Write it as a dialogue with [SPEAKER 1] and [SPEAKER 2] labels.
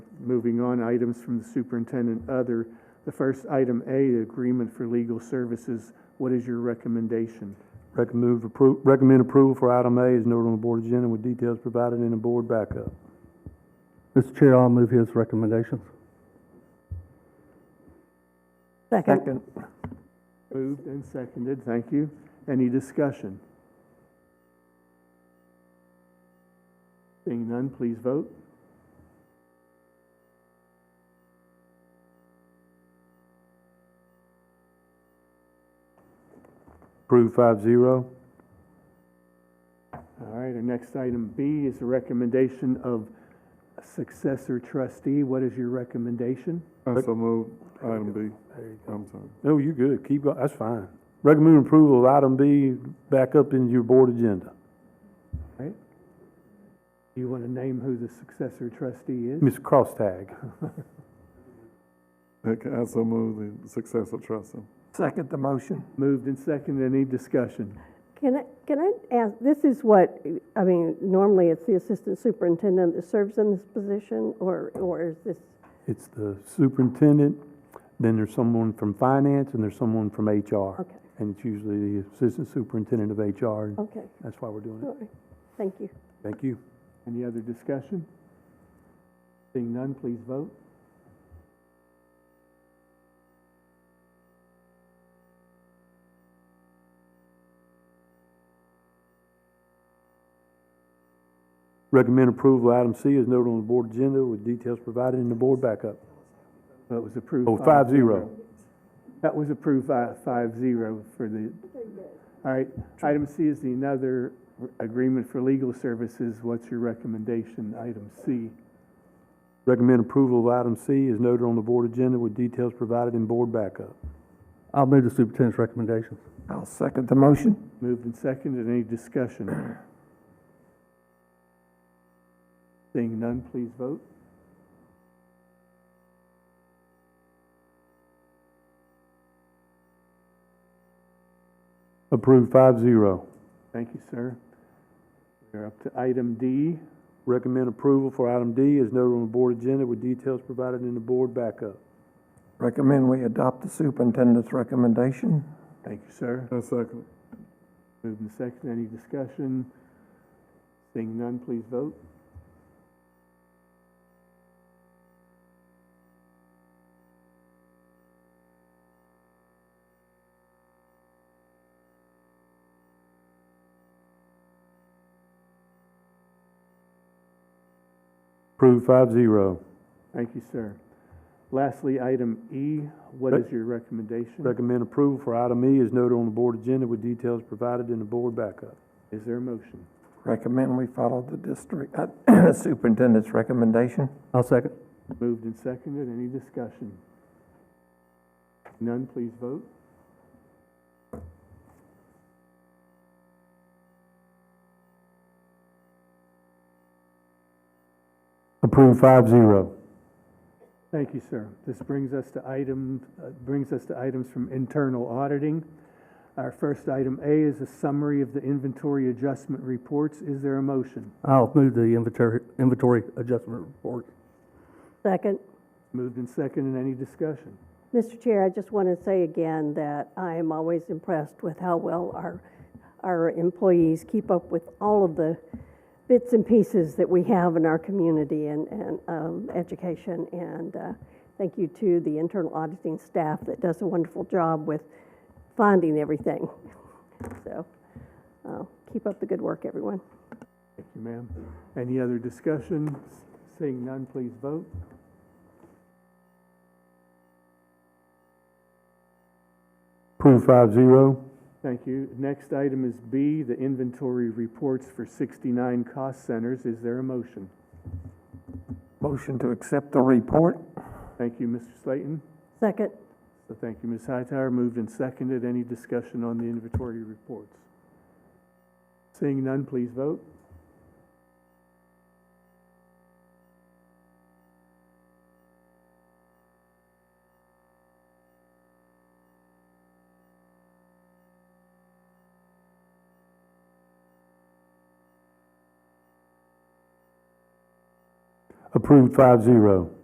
[SPEAKER 1] Moving on, items from the superintendent, other. The first item A, the agreement for legal services. What is your recommendation?
[SPEAKER 2] Recommend appro, recommend approval for item A is noted on the board agenda with details provided in the board backup.
[SPEAKER 3] Mr. Chair, I'll move his recommendations.
[SPEAKER 4] Second.
[SPEAKER 1] Moved and seconded, thank you. Any discussion? Seeing none, please vote.
[SPEAKER 2] Approved five zero.
[SPEAKER 1] All right, our next item B is a recommendation of successor trustee. What is your recommendation?
[SPEAKER 5] I so move item B. I'm sorry.
[SPEAKER 2] No, you good. Keep going. That's fine. Recommend approval of item B back up in your board agenda.
[SPEAKER 1] All right. Do you want to name who the successor trustee is?
[SPEAKER 2] Ms. Crosstag.
[SPEAKER 5] Okay, I so move the successor trustee.
[SPEAKER 3] Second the motion.
[SPEAKER 1] Moved and seconded, any discussion?
[SPEAKER 4] Can I, can I ask, this is what, I mean, normally it's the assistant superintendent that serves in this position, or, or is this,
[SPEAKER 2] It's the superintendent, then there's someone from finance, and there's someone from HR.
[SPEAKER 4] okay,
[SPEAKER 2] And it's usually the assistant superintendent of HR, and
[SPEAKER 4] okay,
[SPEAKER 2] that's why we're doing it.
[SPEAKER 4] all right, thank you.
[SPEAKER 2] Thank you.
[SPEAKER 1] Any other discussion? Seeing none, please vote.
[SPEAKER 2] Recommend approval of item C is noted on the board agenda with details provided in the board backup.
[SPEAKER 1] That was approved.
[SPEAKER 2] Oh, five zero.
[SPEAKER 1] That was approved by five zero for the, all right. Item C is the another agreement for legal services. What's your recommendation, item C?
[SPEAKER 2] Recommend approval of item C is noted on the board agenda with details provided in board backup.
[SPEAKER 3] I'll move the superintendent's recommendations.
[SPEAKER 6] I'll second the motion.
[SPEAKER 1] Moved and seconded, any discussion? Seeing none, please vote.
[SPEAKER 2] Approved five zero.
[SPEAKER 1] Thank you, sir. We're up to item D.
[SPEAKER 2] Recommend approval for item D is noted on the board agenda with details provided in the board backup.
[SPEAKER 6] Recommend we adopt the superintendent's recommendation.
[SPEAKER 1] Thank you, sir.
[SPEAKER 5] I second.
[SPEAKER 1] Moved and seconded, any discussion? Seeing none, please vote.
[SPEAKER 2] Approved five zero.
[SPEAKER 1] Thank you, sir. Lastly, item E, what is your recommendation?
[SPEAKER 2] Recommend approval for item E is noted on the board agenda with details provided in the board backup.
[SPEAKER 1] Is there a motion?
[SPEAKER 6] Recommend we follow the district, uh, superintendent's recommendation.
[SPEAKER 3] I'll second.
[SPEAKER 1] Moved and seconded, any discussion? None, please vote.
[SPEAKER 2] Approved five zero.
[SPEAKER 1] Thank you, sir. This brings us to item, uh, brings us to items from internal auditing. Our first item A is a summary of the inventory adjustment reports. Is there a motion?
[SPEAKER 3] I'll move the inventory, inventory adjustment report.
[SPEAKER 4] Second.
[SPEAKER 1] Moved and seconded, any discussion?
[SPEAKER 4] Mr. Chair, I just want to say again that I am always impressed with how well our, our employees keep up with all of the bits and pieces that we have in our community and, and um, education. And uh, thank you to the internal auditing staff that does a wonderful job with finding everything. So uh, keep up the good work, everyone.
[SPEAKER 1] Thank you, ma'am. Any other discussion? Seeing none, please vote.
[SPEAKER 2] Approved five zero.
[SPEAKER 1] Thank you. Next item is B, the inventory reports for 69 cost centers. Is there a motion?
[SPEAKER 6] Motion to accept the report.
[SPEAKER 1] Thank you, Mr. Slayton.
[SPEAKER 4] Second.
[SPEAKER 1] So thank you, Ms. Hightower. Moved and seconded. Any discussion on the inventory reports? Seeing none, please vote.
[SPEAKER 2] Approved five zero.